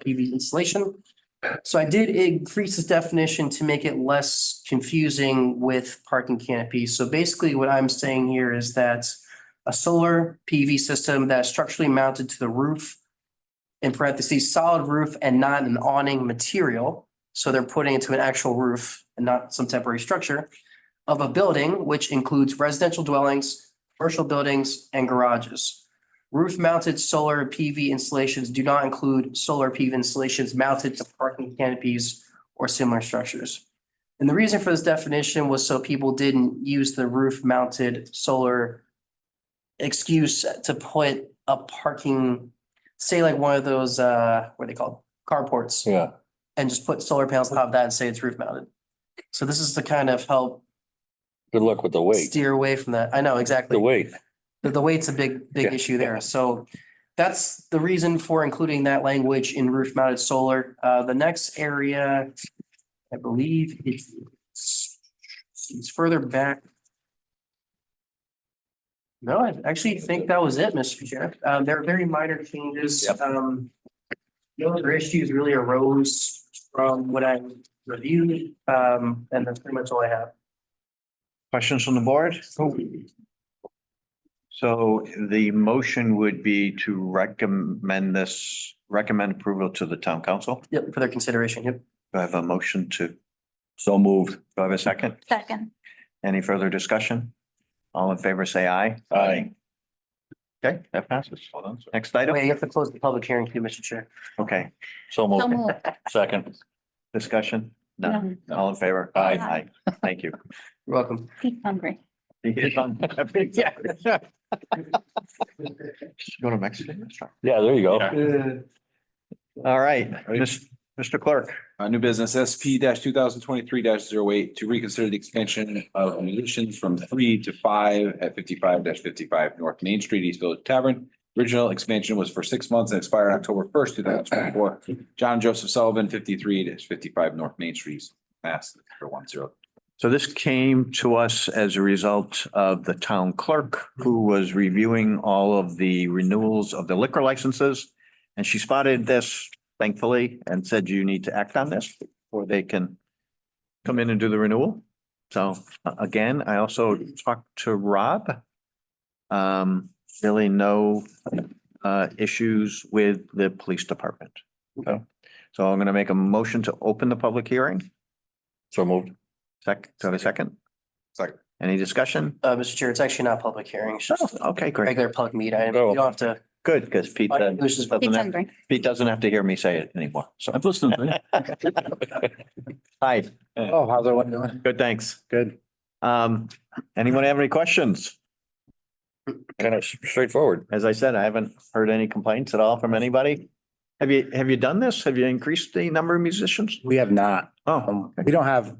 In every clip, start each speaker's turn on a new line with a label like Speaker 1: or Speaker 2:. Speaker 1: PV installation. So I did increase the definition to make it less confusing with parking canopy. So basically what I'm saying here is that a solar PV system that is structurally mounted to the roof in parentheses, solid roof and not an awning material. So they're putting it to an actual roof and not some temporary structure of a building, which includes residential dwellings, commercial buildings, and garages. Roof mounted solar PV installations do not include solar PV installations mounted to parking canopies or similar structures. And the reason for this definition was so people didn't use the roof mounted solar excuse to put a parking, say like one of those, uh, what are they called? Carports
Speaker 2: Yeah,
Speaker 1: and just put solar panels on top of that and say it's roof mounted. So this is to kind of help
Speaker 2: good luck with the weight,
Speaker 1: steer away from that. I know
Speaker 2: the
Speaker 1: exactly.
Speaker 2: weight.
Speaker 1: The, the weight's a big, big
Speaker 2: Yeah,
Speaker 1: issue there. So that's the reason for including that language in roof mounted solar. Uh, the next area, I believe it's, it's further back. No, I actually think that was it, Mr. Chair. Um, there are very minor changes.
Speaker 2: Yep.
Speaker 1: Um, no other issues really arose from what I reviewed, um, and that's pretty much all I have.
Speaker 3: Questions on the board? So the motion would be to recommend this, recommend approval to the town council.
Speaker 1: Yep, for their consideration. Yep.
Speaker 3: Do I have a motion to, do
Speaker 2: So moved.
Speaker 3: I have a second?
Speaker 4: Second,
Speaker 3: Any further discussion? All in favor, say aye.
Speaker 2: Aye.
Speaker 3: Okay, that passes. Next item?
Speaker 1: Wait, you have to close the public hearing too, Mr. Chair.
Speaker 3: Okay,
Speaker 2: So
Speaker 4: so
Speaker 2: moved.
Speaker 4: moved.
Speaker 2: Second.
Speaker 3: discussion? None. All in favor?
Speaker 4: Aye.
Speaker 3: Aye. Thank you.
Speaker 1: You're welcome.
Speaker 4: He's hungry.
Speaker 3: Go to Mexican restaurant.
Speaker 2: Yeah, there you go.
Speaker 3: All right, Mis- Mr. Clerk.
Speaker 5: Uh, new business SP two thousand twenty-three 8 to reconsider the expansion of munitions from three to five at fifty-five fifty-five North Main Street, East Village Tavern. Original expansion was for six months and expired October first, two thousand twenty-four. John Joseph Sullivan, fifty-three fifty-five North Main Street, Mass, for one zero.
Speaker 3: So this came to us as a result of the town clerk who was reviewing all of the renewals of the liquor licenses. And she spotted this thankfully and said, you need to act on this before they can come in and do the renewal. So a- again, I also talked to Rob. Um, really no uh, issues with the police department. So, so I'm going to make a motion to open the public hearing.
Speaker 2: So moved.
Speaker 3: Sec, do I have a second?
Speaker 5: Second.
Speaker 3: Any discussion?
Speaker 1: Uh, Mr. Chair, it's actually not a public hearing. It's just
Speaker 3: Oh, Okay,
Speaker 1: a
Speaker 3: great.
Speaker 1: regular public meet. I, you
Speaker 2: Oh.
Speaker 1: don't have to.
Speaker 3: Good, because Pete doesn't
Speaker 1: This is-
Speaker 4: He's
Speaker 3: doesn't have,
Speaker 4: hungry.
Speaker 3: Pete doesn't have to hear me say it anymore. So,
Speaker 6: I've listened to it.
Speaker 3: hi,
Speaker 6: Oh, how's everyone doing?
Speaker 3: good, thanks.
Speaker 6: Good.
Speaker 3: Um, anyone have any questions?
Speaker 2: Kind of straightforward.
Speaker 3: As I said, I haven't heard any complaints at all from anybody. Have you, have you done this? Have you increased the number of musicians?
Speaker 6: We have not,
Speaker 3: Oh,
Speaker 6: um, we don't have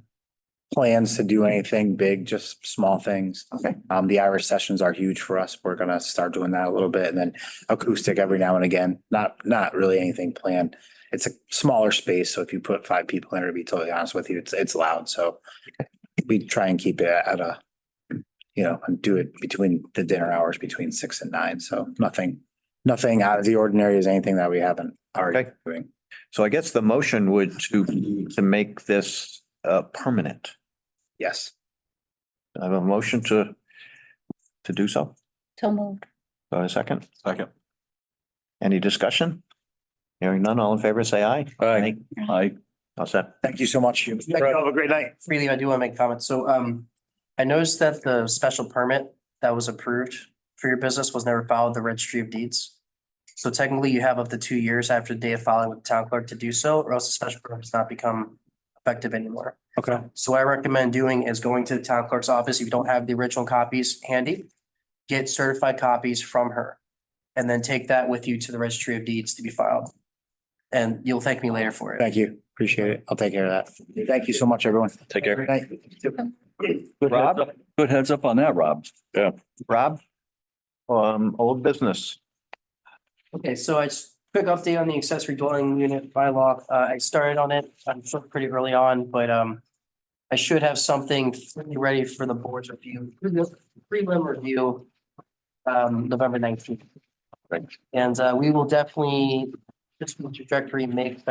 Speaker 6: plans to do anything big, just small things.
Speaker 3: Okay.
Speaker 6: Um, the Irish sessions are huge for us. We're gonna start doing that a little bit and then acoustic every now and again. Not, not really anything planned. It's a smaller space, so if you put five people in, to be totally honest with you, it's, it's loud, so we try and keep it at a, you know, and do it between the dinner hours between six and nine, so nothing, nothing out of the ordinary is anything that we haven't already
Speaker 3: Okay.
Speaker 6: doing.
Speaker 3: so I guess the motion would to, to make this uh, permanent.
Speaker 6: Yes.
Speaker 3: I have a motion to, to do so.
Speaker 4: So moved.
Speaker 3: Do I have a second?
Speaker 5: Second.
Speaker 3: Any discussion? Hearing none, all in favor, say aye.
Speaker 2: Aye.
Speaker 3: Aye. All set.
Speaker 6: Thank you so much. You Have a great night.
Speaker 1: Freely, I do want to make comments. So, um, I noticed that the special permit that was approved for your business was never filed with the registry of deeds. So technically you have up to two years after the day of filing with the town clerk to do so, or else the special permit does not become effective anymore.
Speaker 6: Okay.
Speaker 1: So what I recommend doing is going to the town clerk's office, if you don't have the original copies handy, get certified copies from her. And then take that with you to the registry of deeds to be filed. And you'll thank me later for it.
Speaker 6: Thank you. Appreciate it. I'll take care of that. Thank you so much, everyone.
Speaker 2: Take
Speaker 6: Have
Speaker 2: care.
Speaker 6: a great night.
Speaker 3: Good heads up-
Speaker 6: Good heads up on that, Rob.
Speaker 3: Rob? Um, old business.
Speaker 1: Okay, so I just, quick update on the accessory dwelling unit bylaw. Uh, I started on it, I'm sure pretty early on, but, um, I should have something fully ready for the board's review, prelim review, um, November nineteenth.
Speaker 3: Right.
Speaker 1: And, uh, we will definitely this trajectory makes